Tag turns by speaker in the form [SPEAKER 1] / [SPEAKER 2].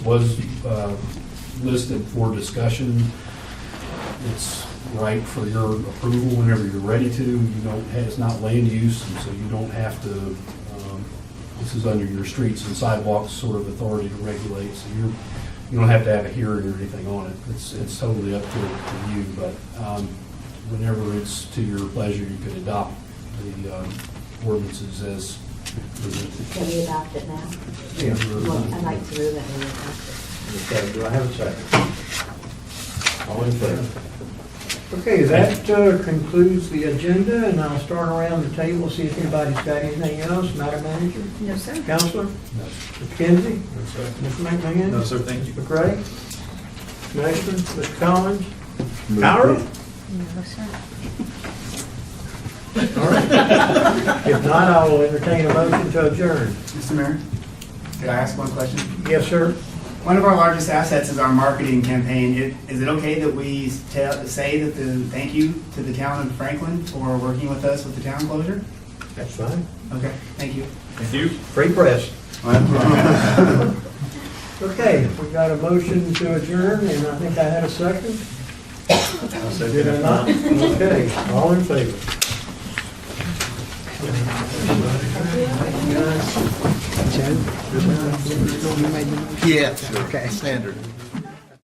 [SPEAKER 1] was uh, listed for discussion. It's right for your approval whenever you're ready to. You don't, it's not land use, and so you don't have to, um, this is under your streets and sidewalks sort of authority to regulate, so you're, you don't have to have a hearing or anything on it. It's, it's totally up to to you, but um, whenever it's to your pleasure, you could adopt the um, ordinances as presented.
[SPEAKER 2] Can we adopt it now?
[SPEAKER 3] Yeah.
[SPEAKER 2] Well, I'd like to move that we adopt
[SPEAKER 3] Okay, do I have a second? All in favor? Okay, that uh, concludes the agenda, and I'll start around the table, see if anybody's got anything else. Madam Manager?
[SPEAKER 2] it. No, sir.
[SPEAKER 3] Counselor?
[SPEAKER 1] No.
[SPEAKER 3] McKenzie?
[SPEAKER 4] No, sir.
[SPEAKER 3] Mr. McMahon?
[SPEAKER 4] No, sir, thank you.
[SPEAKER 3] Mr. McRae? Mr. Mr. Collins? Howard?
[SPEAKER 2] No, sir.
[SPEAKER 3] All right. If not, I will entertain a motion to adjourn.
[SPEAKER 5] Mr. Mayor, could I ask one question?
[SPEAKER 3] Yes, sir?
[SPEAKER 5] One of our largest assets is our marketing campaign. It- Is it okay that we tell, say that the, thank you to the town of Franklin for working with us with the town closure?
[SPEAKER 3] That's fine.
[SPEAKER 5] Okay, thank you.
[SPEAKER 4] Thank you.
[SPEAKER 3] Free press. Okay, we got a motion to adjourn, and I think I had a second. Did I not? Okay, all in favor?
[SPEAKER 6] Yeah, okay, standard.